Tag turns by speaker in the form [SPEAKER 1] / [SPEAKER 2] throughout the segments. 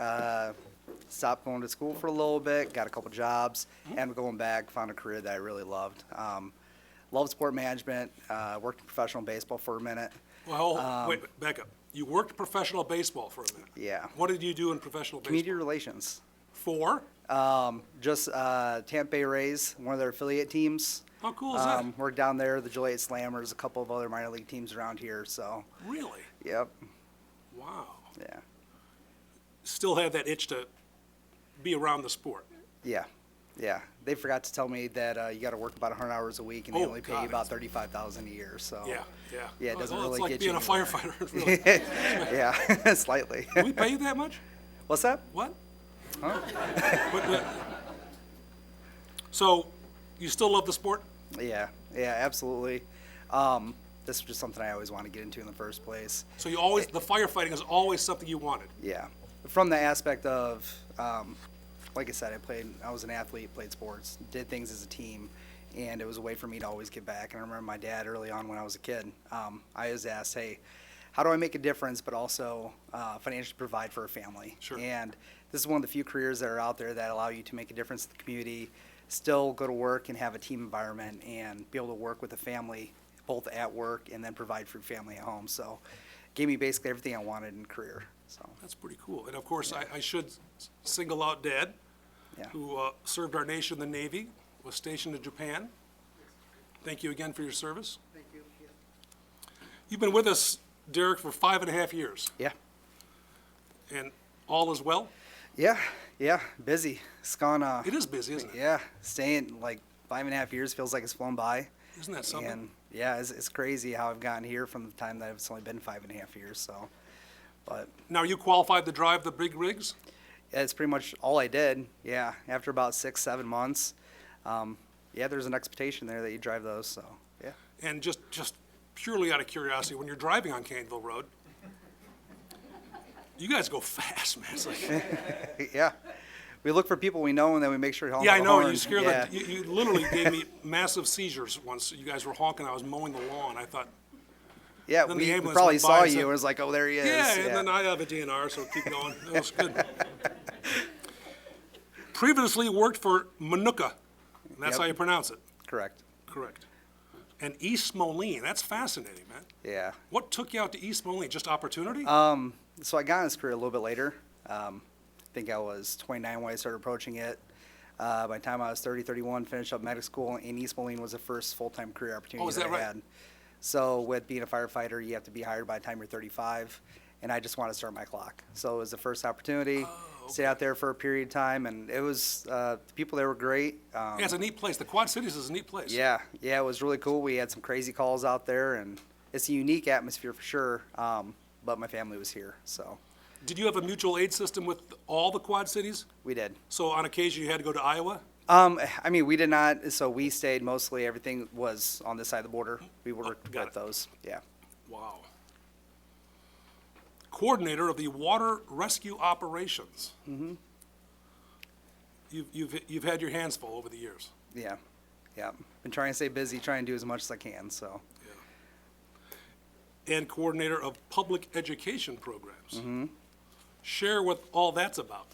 [SPEAKER 1] Uh, stopped going to school for a little bit, got a couple jobs,
[SPEAKER 2] Mm-hmm.
[SPEAKER 1] and going back, found a career that I really loved. Um, loved sport management, uh, worked in professional baseball for a minute.
[SPEAKER 2] Well, hold- wait, back up. You worked professional baseball for a minute.
[SPEAKER 1] Um, Yeah.
[SPEAKER 2] What did you do in professional
[SPEAKER 1] Media
[SPEAKER 2] baseball?
[SPEAKER 1] relations.
[SPEAKER 2] For?
[SPEAKER 1] Um, just uh, Tampa Bay Rays, one of their affiliate teams.
[SPEAKER 2] How cool is that?
[SPEAKER 1] Um, worked down there, the Joliet Slammers, a couple of other minor league teams around here. So,
[SPEAKER 2] Really?
[SPEAKER 1] yep,
[SPEAKER 2] Wow.
[SPEAKER 1] yeah,
[SPEAKER 2] Still had that itch to be around the sport.
[SPEAKER 1] yeah, yeah. They forgot to tell me that uh, you got to work about 100 hours a week, and they
[SPEAKER 2] Oh,
[SPEAKER 1] only pay
[SPEAKER 2] God,
[SPEAKER 1] you about
[SPEAKER 2] that's-
[SPEAKER 1] 35,000 a year. So,
[SPEAKER 2] Yeah, yeah.
[SPEAKER 1] Oh. yeah, it doesn't
[SPEAKER 2] Well,
[SPEAKER 1] really get you.
[SPEAKER 2] It's like being a firefighter, really.
[SPEAKER 1] firefighter. yeah, slightly.
[SPEAKER 2] Do we pay you that much?
[SPEAKER 1] What's that?
[SPEAKER 2] What? But- but- So, you still love the sport?
[SPEAKER 1] Yeah, yeah, absolutely. Um, this is just something I always want to get into in the first place.
[SPEAKER 2] So you always, the firefighting is always something you wanted?
[SPEAKER 1] Yeah, from the aspect of, um, like I said, I played, I was an athlete, played sports, did things as a team, and it was a way for me to always give back. And I remember my dad early on when I was a kid, um, I was asked, "Hey, how do I make a difference, but also uh, financially provide for a family?"
[SPEAKER 2] Sure.
[SPEAKER 1] And this is one of the few careers that are out there that allow you to make a difference in the community, still go to work and have a team environment, and be able to work with a family both at work and then provide for your family at home. So, gave me basically everything I wanted in a career. So.
[SPEAKER 2] That's pretty cool. And of course, I, I should s- single out Dad,
[SPEAKER 1] Yeah.
[SPEAKER 2] who uh, served our nation in the Navy, was stationed in Japan. Thank you again for your service. Thank you. You've been with us, Derek, for five and a half years,
[SPEAKER 1] Yeah.
[SPEAKER 2] and all is well?
[SPEAKER 1] Yeah. Yeah. Busy. It's gone. Uh,
[SPEAKER 2] It is busy, isn't it?
[SPEAKER 1] yeah. Staying like five and a half years feels like it's flown by.
[SPEAKER 2] Isn't that something?
[SPEAKER 1] And yeah, it's, it's crazy how I've gotten here from the time that it's only been five and a half years. So, but
[SPEAKER 2] Now, are you qualified to drive the big rigs?
[SPEAKER 1] yeah, it's pretty much all I did. Yeah. After about six, seven months, um, yeah, there's an expectation there that you drive those. So, yeah.
[SPEAKER 2] And just, just purely out of curiosity, when you're driving on Caneville Road, you guys go fast, man. It's like,
[SPEAKER 1] yeah. We look for people we know and then we make sure to honk
[SPEAKER 2] Yeah, I
[SPEAKER 1] the
[SPEAKER 2] know,
[SPEAKER 1] horn.
[SPEAKER 2] you scared
[SPEAKER 1] yeah.
[SPEAKER 2] the, you, you literally gave me massive seizures once, you guys were honking, I was mowing the lawn, I thought,
[SPEAKER 1] yeah,
[SPEAKER 2] then
[SPEAKER 1] we,
[SPEAKER 2] the
[SPEAKER 1] we
[SPEAKER 2] ambulance
[SPEAKER 1] probably
[SPEAKER 2] went by
[SPEAKER 1] saw
[SPEAKER 2] and
[SPEAKER 1] you
[SPEAKER 2] said-
[SPEAKER 1] and was like, oh, there he is.
[SPEAKER 2] yeah, and then I have a DNR, so keep going, that was good. Previously worked for Manuka, and that's how
[SPEAKER 1] Yep.
[SPEAKER 2] you pronounce it,
[SPEAKER 1] Correct.
[SPEAKER 2] correct. And East Moline, that's fascinating, man.
[SPEAKER 1] Yeah.
[SPEAKER 2] What took you out to East Moline, just opportunity?
[SPEAKER 1] Um, so I got in this career a little bit later. Um, I think I was 29 when I started approaching it. Uh, by the time I was 30, 31, finished up medical school, and East Moline was the first full-time career opportunity
[SPEAKER 2] Oh, is that
[SPEAKER 1] I
[SPEAKER 2] right?
[SPEAKER 1] had. So with being a firefighter, you have to be hired by the time you're 35, and I just wanted to start my clock. So it was the first opportunity.
[SPEAKER 2] Oh,
[SPEAKER 1] Stayed out there for a period of time, and it was uh, the people there were great. Um,
[SPEAKER 2] Yeah, it's a neat place, the Quad Cities is a neat place.
[SPEAKER 1] yeah, yeah, it was really cool. We had some crazy calls out there, and it's a unique atmosphere for sure. Um, but my family was here, so
[SPEAKER 2] Did you have a mutual aid system with all the Quad Cities?
[SPEAKER 1] we did.
[SPEAKER 2] So on occasion, you had to go to Iowa?
[SPEAKER 1] Um, I mean, we did not, so we stayed mostly, everything was on this side of the border. We worked
[SPEAKER 2] Oh, got
[SPEAKER 1] with
[SPEAKER 2] it.
[SPEAKER 1] those, yeah.
[SPEAKER 2] Wow. Coordinator of the Water Rescue Operations. Mm-hmm. You've, you've, you've had your hands full over the years.
[SPEAKER 1] Yeah, yeah. Been trying to stay busy, trying to do as much as I can, so.
[SPEAKER 2] And coordinator of public education programs. Share what all that's about.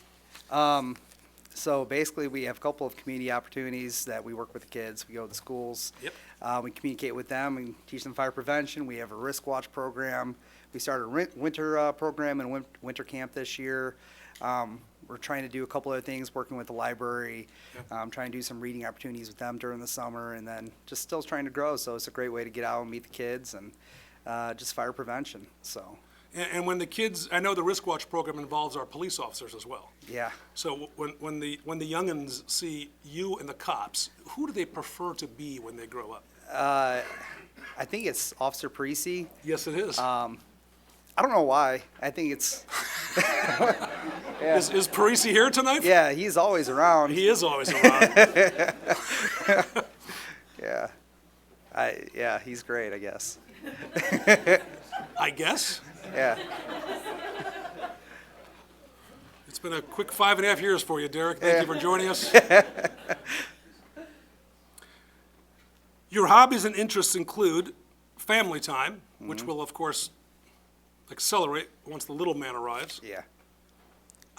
[SPEAKER 1] So basically, we have a couple of community opportunities that we work with the kids. We go to the schools.
[SPEAKER 2] Yep.
[SPEAKER 1] Uh, we communicate with them and teach them fire prevention. We have a risk watch program. We started a rin- winter uh, program and win- winter camp this year. Um, we're trying to do a couple other things, working with the library, um, trying to do some reading opportunities with them during the summer, and then just still trying to grow. So it's a great way to get out and meet the kids and uh, just fire prevention. So,
[SPEAKER 2] And, and when the kids, I know the Risk Watch program involves our police officers as well.
[SPEAKER 1] yeah.
[SPEAKER 2] So when, when the, when the youngins see you and the cops, who do they prefer to be when they grow up?
[SPEAKER 1] I think it's Officer Parisi.
[SPEAKER 2] Yes, it is.
[SPEAKER 1] I don't know why. I think it's.
[SPEAKER 2] Is, is Parisi here tonight?
[SPEAKER 1] Yeah, he's always around.
[SPEAKER 2] He is always around.
[SPEAKER 1] yeah. I yeah, he's great, I guess.
[SPEAKER 2] I guess.
[SPEAKER 1] Yeah.
[SPEAKER 2] It's been a quick five and a half years for you, Derek. Thank you for joining us. Your hobbies and interests include family time, which will, of course, accelerate once the little man arrives,
[SPEAKER 1] Yeah.